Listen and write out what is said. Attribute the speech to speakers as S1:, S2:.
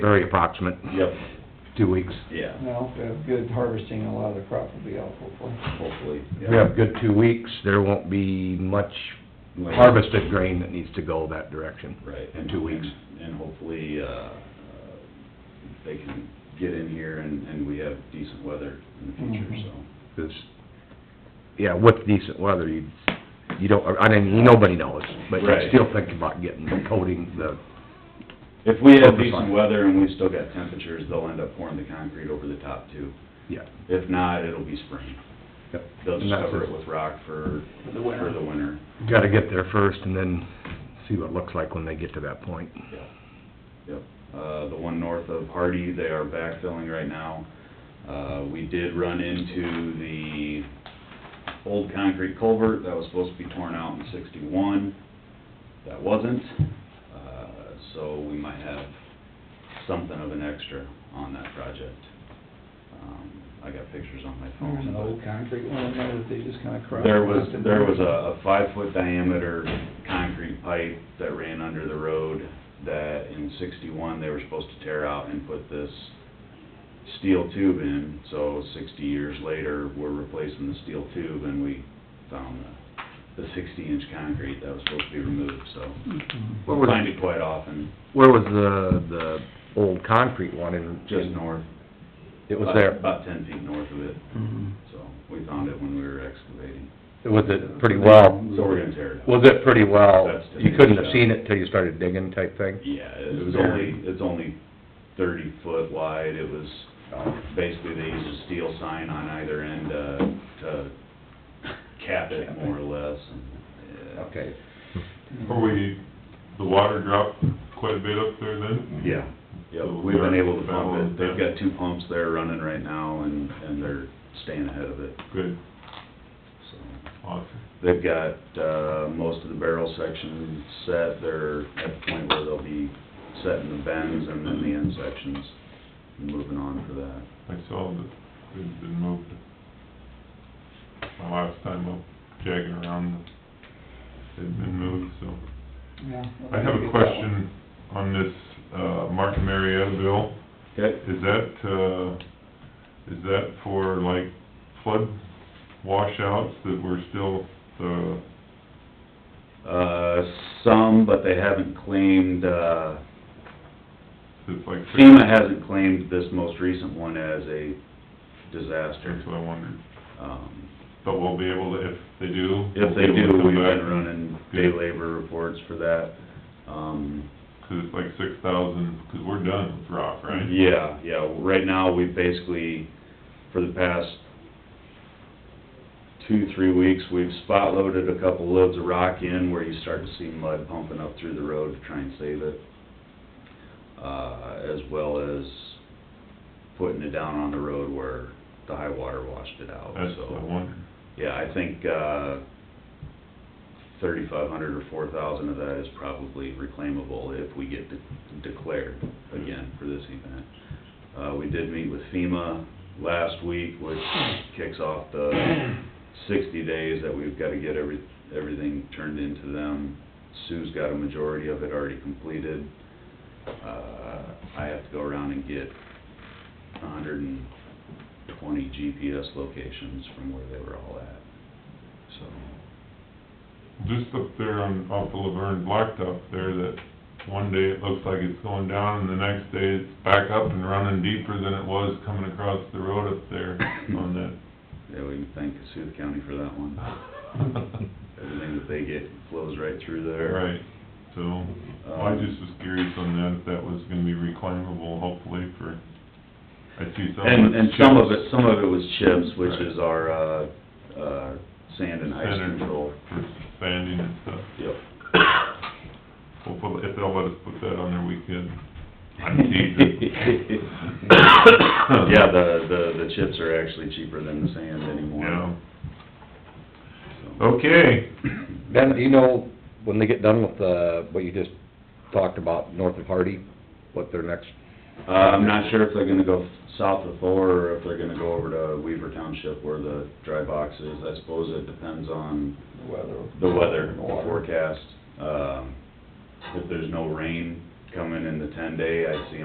S1: very approximate,
S2: Yep,
S1: two weeks.
S2: yeah,
S3: Well, if we have good harvesting, a lot of the crop will be out hopefully.
S2: hopefully.
S1: If we have good two weeks, there won't be much
S2: Like-
S1: harvested grain that needs to go that direction.
S2: Right.
S1: In two weeks.
S2: And hopefully, uh, uh, they can get in here and, and we have decent weather in the future,
S1: Mm-hmm.
S3: Mhm.
S2: so.
S1: 'Cause, yeah, with decent weather, you, you don't, I mean, nobody knows, but
S2: Right.
S1: you're still thinking about getting the coating, the,
S2: If we have
S1: Focus on
S2: decent
S1: it.
S2: weather and we still got temperatures, they'll end up pouring the concrete over the top too.
S1: yeah.
S2: If not, it'll be spring.
S1: Yep.
S2: They'll just
S1: And that's
S2: cover
S1: it.
S2: it with rock for,
S3: For the winter.
S2: for the winter.
S1: Gotta get there first and then see what it looks like when they get to that point.
S2: Yep, yep. Uh, the one north of Hardy, they are backfilling right now. Uh, we did run into the old concrete culvert that was supposed to be torn out in sixty-one. That wasn't, uh, so we might have something of an extra on that project. Um, I got pictures on my phone.
S3: There's an
S2: but-
S3: old concrete one in there that they just kinda crushed.
S2: there was, there was a a five-foot diameter concrete pipe that ran under the road that in sixty-one, they were supposed to tear out and put this steel tube in. So sixty years later, we're replacing the steel tube and we found the, the sixty-inch concrete that was supposed to be removed, so.
S3: Mhm.
S1: What
S2: we
S1: was,
S2: Find it quite often,
S1: where was the, the old concrete one in?
S2: just north.
S1: It was
S2: about-
S1: there,
S2: About ten feet north of it,
S3: Mhm.
S2: so we found it when we were excavating.
S1: was uh, it pretty well,
S2: So we're gonna tear it out.
S1: was it pretty well,
S2: That's the
S1: you couldn't have
S2: thing.
S1: seen it till you started digging type thing?
S2: Yeah, it was
S1: Very.
S2: only, it's only thirty foot wide, it was, um, basically they used a steel sign on either end, uh, to cap it more or less, and, yeah.
S1: Okay.
S4: Are we, the water dropped quite a bit up there then?
S2: Yeah, yeah, we've been able to pump it, they've got two pumps there running right now, and, and they're staying ahead of it,
S4: Good,
S2: so.
S4: awesome.
S2: They've got, uh, most of the barrel section set, they're at the point where they'll be setting the bends and then the end sections, and moving on for that.
S4: I saw that it's been moved. My last time up jagging around, it had been moved, so.
S3: Yeah.
S4: I have a question on this, uh, Martin Marietta bill.
S2: Okay.
S4: Is that, uh, is that for like flood washouts that we're still, uh,
S2: Uh, some, but they haven't claimed, uh,
S4: it's like...
S2: FEMA hasn't claimed this most recent one as a disaster.
S4: That's what I wondered.
S2: Um,
S4: But we'll be able to, if they do.
S2: if they
S4: we'll be able
S2: do, we've
S4: to come
S2: been
S4: back,
S2: running day labor reports for that. Um,
S4: 'cause it's like six thousand, because we're done with rock, right?
S2: yeah, yeah, right now, we've basically, for the past two, three weeks, we've spot loaded a couple loads of rock in where you start to see mud pumping up through the road to try and save it. Uh, as well as putting it down on the road where the high water washed it out,
S4: That's
S2: so.
S4: what I wondered.
S2: Yeah, I think, uh, thirty-five hundred or four thousand of that is probably reclaimable if we get de- declared again for this event. Uh, we did meet with FEMA last week, which kicks off the sixty days that we've gotta get every, everything turned into them. Sue's got a majority of it already completed. Uh, I have to go around and get hundred and twenty GPS locations from where they were all at, so.
S4: Just up there on, off the Laverne Blacktop there, that one day it looks like it's going down, and the next day it's back up and running deeper than it was coming across the road up there on that.
S2: Yeah, we can thank Cassuth County for that one. Everything that they get flows right through there. Um,
S4: Right, so, I just was curious on that, if that was gonna be reclaimable, hopefully, for, I see some.
S2: And, and
S4: that's
S2: some of
S4: chips.
S2: it, some of it was chips, which
S4: Right.
S2: is our, uh, uh, sand and ice
S4: Standard
S2: control.
S4: For sanding and stuff.
S2: Yep.
S4: Hopefully, if they'll let us put that on there, we can. I'm teasing.
S2: Yeah, the, the, the chips are actually cheaper than the sand anymore.
S4: Yeah.
S2: so.
S4: Okay,
S1: Ben, do you know, when they get done with the, what you just talked about, north of Hardy, what their next,
S2: Uh, I'm not sure if they're gonna go south of Thor, or if they're gonna go over to Weaver Township where the dry box is. I suppose it depends on
S3: The weather.
S2: the weather, the
S3: Water.
S2: forecast. Um, if there's no rain coming in the ten day, I see